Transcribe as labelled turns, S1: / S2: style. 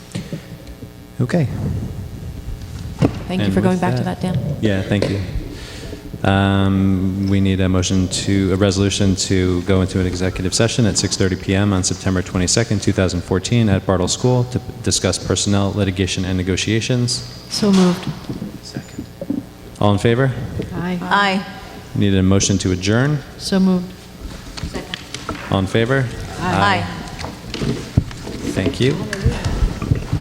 S1: Okay.
S2: Thank you
S1: And
S2: for going
S1: with
S2: back to that, Dan.
S1: Yeah, thank you. Um, We need a motion to, a resolution to go into an executive session at 6:30 PM on September 22nd, 2014, at Bartle School to discuss personnel, litigation, and negotiations.
S2: So moved.
S1: All in favor?
S2: Aye.
S3: Aye.
S1: Need a motion to adjourn?
S2: So moved.
S1: All in favor?
S3: Aye.
S1: Thank you.